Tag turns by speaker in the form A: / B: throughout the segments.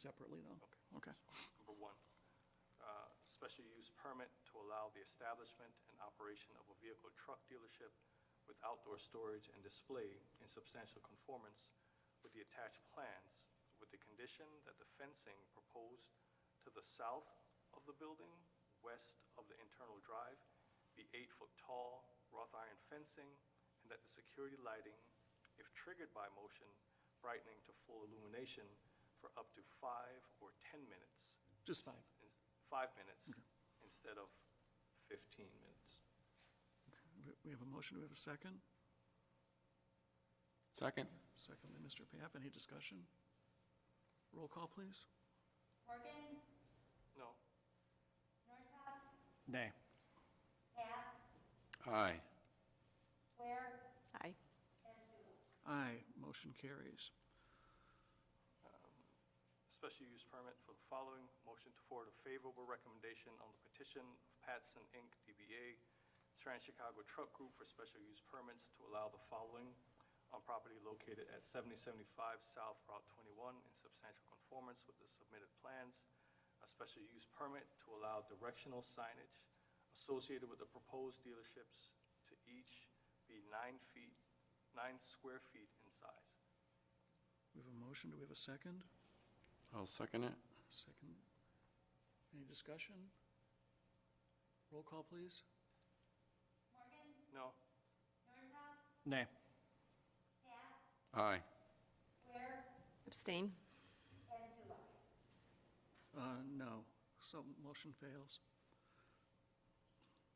A: separately, though? Okay.
B: Number one, uh, special use permit to allow the establishment and operation of a vehicle truck dealership with outdoor storage and display in substantial conformance with the attached plans, with the condition that the fencing proposed to the south of the building, west of the internal drive, be eight-foot tall wrought iron fencing, and that the security lighting, if triggered by motion, brightening to full illumination for up to five or 10 minutes
A: Just fine.
B: in- five minutes instead of 15 minutes.
A: We- We have a motion, do we have a second?
C: Second.
A: Second by Mr. Paff, any discussion? Roll call, please.
D: Morgan,
B: No,
D: Nortop,
E: Nay.
D: Pat,
C: Aye.
D: Ware,
F: Aye.
D: and Sue.
A: Aye, motion carries.
B: special use permit for the following. Motion to forward a favorable recommendation on the petition of Patson Inc., DBA Trans-Chicago Truck Group for special use permits to allow the following on property located at 7075 South Route 21 in substantial conformance with the submitted plans. A special use permit to allow directional signage associated with the proposed dealerships to each be nine feet, nine square feet in size.
A: We have a motion, do we have a second?
C: I'll second it.
A: Second. Any discussion? Roll call, please.
D: Morgan,
B: No?
D: Nortop,
E: Nay.
D: Pat,
C: Aye.
D: Ware,
F: Abstain.
D: and Sue.
A: Uh, no, so motion fails.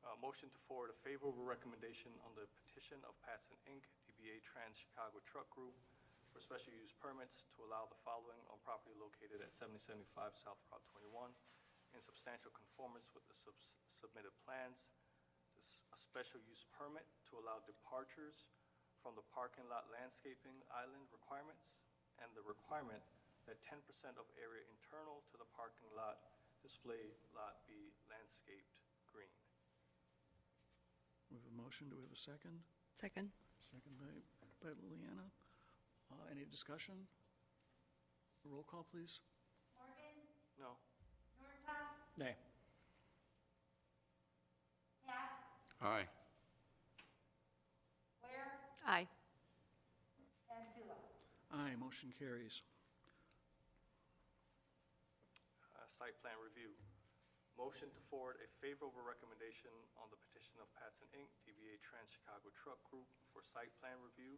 B: Uh, Motion to forward a favorable recommendation on the petition of Patson Inc., DBA Trans Chicago Truck Group, for special use permits to allow the following on property located at 7075 South Route 21 in substantial conformance with the subs- submitted plans. This- A special use permit to allow departures from the parking lot landscaping island requirements and the requirement that 10% of area internal to the parking lot display lot be landscaped green.
A: We have a motion, do we have a second?
F: Second.
A: Second by, by Liliana. Uh, any discussion? Roll call, please.
D: Morgan,
B: No?
D: Nortop,
E: Nay.
D: Pat,
C: Aye.
D: Ware,
F: Aye.
D: and Sue.
A: Aye, motion carries.
B: uh, site plan review. Motion to forward a favorable recommendation on the petition of Patson Inc., DBA Trans Chicago Truck Group for site plan review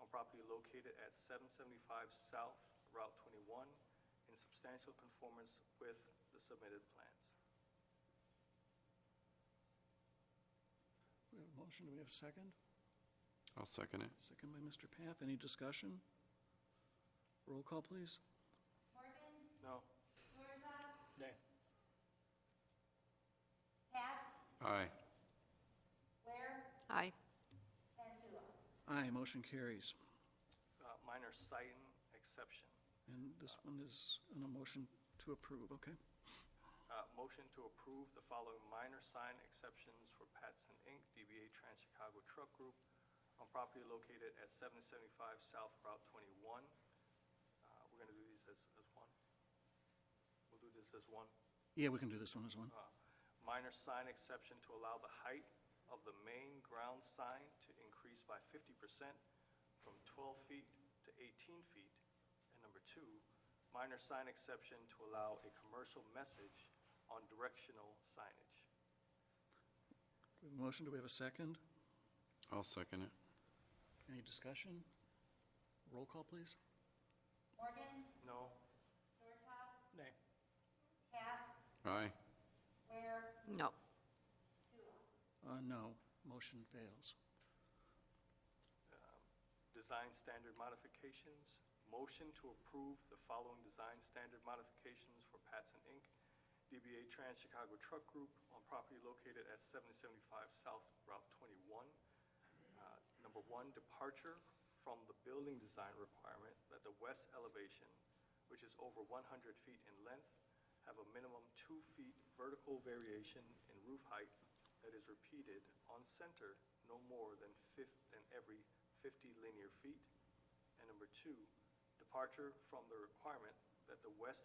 B: on property located at 775 South Route 21 in substantial conformance with the submitted plans.
A: We have a motion, do we have a second?
C: I'll second it.
A: Second by Mr. Paff, any discussion? Roll call, please.
D: Morgan,
B: No?
D: Nortop,
E: Nay.
D: Pat,
C: Aye.
D: Ware,
F: Aye.
D: and Sue.
A: Aye, motion carries.
B: Uh, Minor site exception.
A: And this one is an emotion to approve, okay?
B: Uh, Motion to approve the following minor sign exceptions for Patson Inc., DBA Trans-Chicago Truck Group on property located at 775 South Route 21. Uh, We're going to do these as, as one. We'll do this as one.
A: Yeah, we can do this one as one.
B: Uh, Minor sign exception to allow the height of the main ground sign to increase by 50% from 12 feet to 18 feet. And number two, minor sign exception to allow a commercial message on directional signage.
A: We have a Motion, do we have a second?
C: I'll second it.
A: Any discussion? Roll call, please.
D: Morgan,
B: No?
D: Nortop,
E: Nay.
D: Pat,
C: Aye.
D: Ware,
F: No.
D: Sue.
A: Uh, no, motion fails.
B: um, Design standard modifications. Motion to approve the following design standard modifications for Patson Inc., DBA Trans Chicago Truck Group on property located at 7075 South Route 21. Uh, Number one, departure from the building design requirement that the west elevation, which is over 100 feet in length, have a minimum two feet vertical variation in roof height that is repeated on center no more than fif, than every 50 linear feet. And number two, departure from the requirement that the west